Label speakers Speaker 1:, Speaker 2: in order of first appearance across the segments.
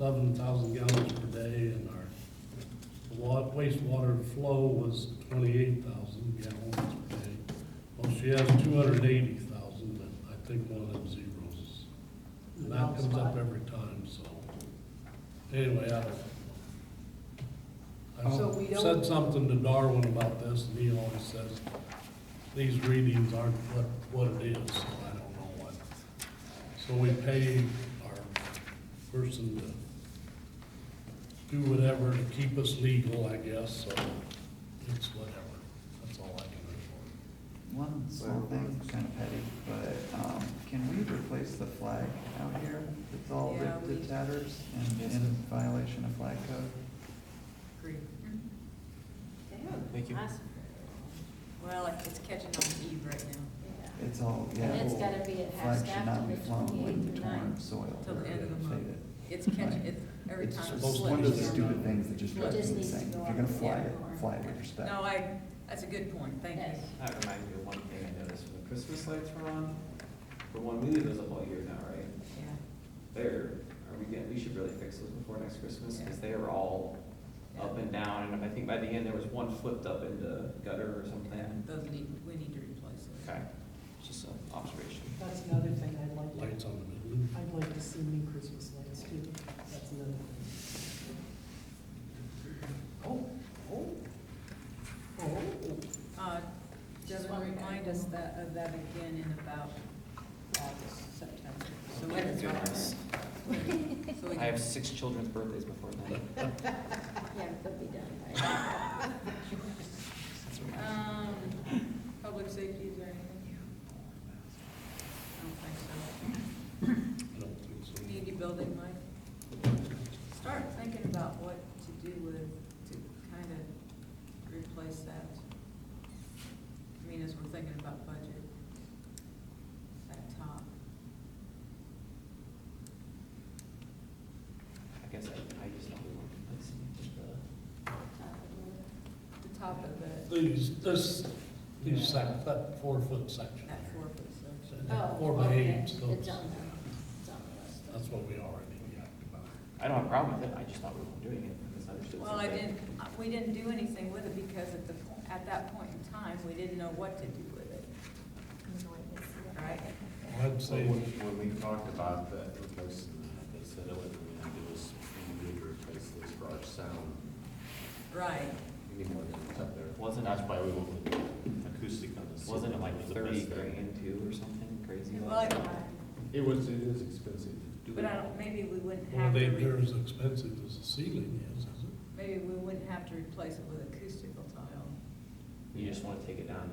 Speaker 1: eleven thousand gallons per day, and our wa- wastewater flow was twenty-eight thousand gallons per day. Well, she has two hundred and eighty thousand, but I think one of them zeros is and that comes up every time, so, anyway, I,
Speaker 2: So we
Speaker 1: I
Speaker 2: don't-
Speaker 1: said something to Darwin about this, and he always says, these readings aren't what, what it is, so I don't know what. So we pay our person to do whatever to keep us legal, I guess, so it's whatever, that's all I can report.
Speaker 3: One small thing, kind of petty, but, um, can we replace the flag out here? It's all
Speaker 2: Yeah,
Speaker 3: ripped
Speaker 2: we-
Speaker 3: to tatters and in violation of flag code.
Speaker 2: Agreed.
Speaker 4: Thank you.
Speaker 2: Well, it- it's catching on the eve right now,
Speaker 5: Yeah.
Speaker 3: It's all, yeah.
Speaker 5: And it's
Speaker 3: well,
Speaker 5: gotta be at half
Speaker 3: Flag should
Speaker 5: staff
Speaker 3: not be
Speaker 5: till the
Speaker 3: flown when
Speaker 5: 28th or
Speaker 3: torn
Speaker 5: 9th.
Speaker 3: soil
Speaker 2: till
Speaker 3: or
Speaker 2: the end of the month.
Speaker 3: faded.
Speaker 2: It's catching, it's every
Speaker 3: It's
Speaker 2: time it
Speaker 3: just
Speaker 2: slips.
Speaker 3: one of those stupid things that just
Speaker 5: It
Speaker 3: drives
Speaker 5: just
Speaker 3: me
Speaker 5: needs to
Speaker 3: insane. If
Speaker 5: go
Speaker 3: you're
Speaker 5: on
Speaker 3: gonna
Speaker 5: the
Speaker 3: fly
Speaker 5: air
Speaker 3: it,
Speaker 5: more.
Speaker 3: fly it with respect.
Speaker 2: No, I, that's a good point, thank you.
Speaker 5: Yes.
Speaker 4: That reminds me of one thing I noticed when the Christmas lights were on, for one, we leave those up all year now, right?
Speaker 2: Yeah.
Speaker 4: They're, are we getting, we should really fix those before next Christmas, because they were all up and down, and I think by the end, there was one flipped up in the gutter or something.
Speaker 2: Those need, we need to replace those.
Speaker 4: Okay, just an observation.
Speaker 6: That's another thing I'd like
Speaker 1: Lights
Speaker 6: to,
Speaker 1: on the building,
Speaker 6: I'd like to see new Christmas lights too. That's another thing. Oh, oh, oh.
Speaker 2: Uh, Devin, remind us that, of that again in about August, September. So we can talk
Speaker 4: Goodness.
Speaker 2: about- so we
Speaker 4: I have
Speaker 2: can-
Speaker 4: six children's birthdays before then.
Speaker 5: Yeah, they'll be done
Speaker 2: Um, public safety, is there anything? I don't think
Speaker 1: I don't think so.
Speaker 2: so. Community building, Mike? Start thinking about what to do with, to kind of replace that. I mean, as we're thinking about budget, that top.
Speaker 4: I guess I, I just don't want to, let's see, just uh, the,
Speaker 2: The top of the,
Speaker 1: These, this, these sec, that four-foot section
Speaker 2: that
Speaker 1: here.
Speaker 2: four Oh, foot section.
Speaker 1: That
Speaker 5: by.
Speaker 1: Four by eight,
Speaker 5: It's
Speaker 1: so
Speaker 5: on Oh, the, it's
Speaker 1: it's-
Speaker 5: on the
Speaker 1: that's
Speaker 5: list.
Speaker 1: what we already yacked about.
Speaker 4: I don't have a problem with it, I just thought we weren't doing it, and it's understood.
Speaker 2: Well, I
Speaker 4: something.
Speaker 2: didn't, we didn't do anything with it because at the, po- at that point in time, we didn't know what to do with it, right?
Speaker 1: Well, I'd
Speaker 7: So
Speaker 1: say,
Speaker 7: when, when we talked about that replacement, they said "Oh, only thing we had to do was we need to replace those garage sound.
Speaker 2: Right,
Speaker 7: We need more than up there.
Speaker 4: Wasn't-
Speaker 7: That's why we went with acoustic on this.
Speaker 4: Wasn't it like
Speaker 7: was the
Speaker 4: thirty
Speaker 7: best thing.
Speaker 4: grand too, or something crazy?
Speaker 2: well, I
Speaker 4: like
Speaker 2: don't,
Speaker 7: It was, it is expensive to do.
Speaker 2: but I don't, maybe we wouldn't
Speaker 1: well,
Speaker 2: have to,
Speaker 1: they,
Speaker 2: re-
Speaker 1: they're as expensive as the ceiling is, is it?
Speaker 2: maybe we wouldn't have to replace it with acoustical tile,
Speaker 4: You just wanna take it down.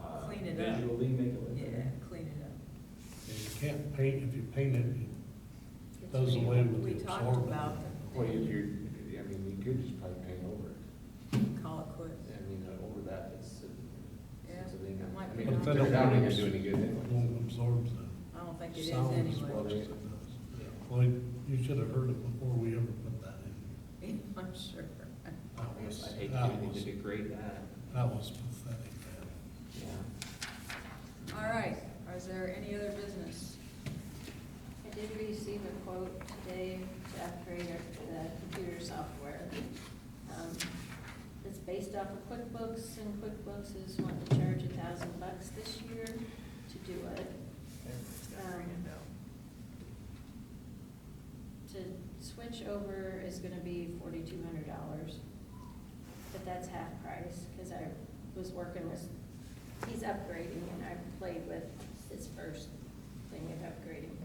Speaker 4: uh,
Speaker 2: Clean it up.
Speaker 4: Visually make it look.
Speaker 2: yeah, clean it up.
Speaker 1: And you can't paint, if you paint it, it does away with
Speaker 2: We
Speaker 1: the
Speaker 2: talked
Speaker 1: absorbent.
Speaker 2: about,
Speaker 7: Well, you, you, I mean, you could just probably paint over it.
Speaker 2: the- call it quits,
Speaker 7: I mean, uh, over that, it's, uh,
Speaker 2: Yeah,
Speaker 7: it's a thing.
Speaker 2: that might
Speaker 7: I
Speaker 2: be nice.
Speaker 7: mean, if they're down, it doesn't do any good
Speaker 1: It
Speaker 7: anyway.
Speaker 1: won't absorb the
Speaker 2: I don't think it is
Speaker 1: sound as
Speaker 2: anyway.
Speaker 1: well as
Speaker 7: anyway.
Speaker 1: it does. Well, you should have heard it before we ever put that in.
Speaker 2: I'm sure.
Speaker 1: That
Speaker 4: I
Speaker 1: was,
Speaker 4: hate
Speaker 1: that
Speaker 4: anything to
Speaker 1: was,
Speaker 4: degrade that,
Speaker 1: that was pathetic, man.
Speaker 4: yeah.
Speaker 2: All right, is there any other business?
Speaker 5: I did receive a quote today to upgrade our- the computer software. Um, It's based off of QuickBooks, and QuickBooks is wanting to charge a thousand bucks this year to do it.
Speaker 3: uh,
Speaker 5: To switch over is gonna be forty-two hundred dollars, but that's half price, cause I was working with, he's upgrading and I played with his first thing of upgrading.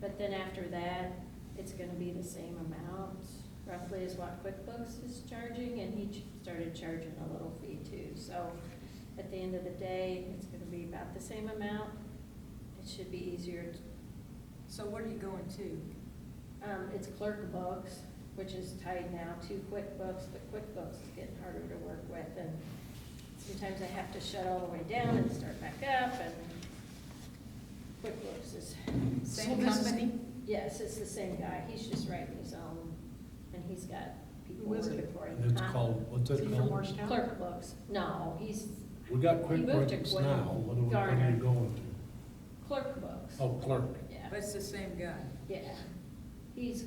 Speaker 5: But then after that, it's gonna be the same amount roughly as what QuickBooks is charging, and he ch- started charging a little fee too, so at the end of the day, it's gonna be about the same amount. It should be easier to
Speaker 2: So what are you going to?
Speaker 5: um, it's clerk books, which is tied now to QuickBooks, but QuickBooks is getting harder to work with, and sometimes I have to shut all the way down and start back up, and QuickBooks is,
Speaker 2: Same
Speaker 6: this is-
Speaker 2: company?
Speaker 5: yes, it's the same guy, he's just writing his own, and he's got people
Speaker 6: Who is
Speaker 5: working
Speaker 6: it?
Speaker 5: for him.
Speaker 1: And it's
Speaker 2: Uh,
Speaker 5: Huh?
Speaker 1: called, what's
Speaker 6: Is
Speaker 1: it
Speaker 6: he from
Speaker 1: called?
Speaker 6: Morristown?
Speaker 5: Clerk books, no, he's
Speaker 1: We got
Speaker 5: He moved to
Speaker 1: QuickBooks
Speaker 5: Quick-
Speaker 1: now, what are we, what are
Speaker 5: Garner.
Speaker 1: you going
Speaker 5: clerk books,
Speaker 1: to? Oh, clerk.
Speaker 5: yeah,
Speaker 2: But it's the same guy.
Speaker 5: yeah, he's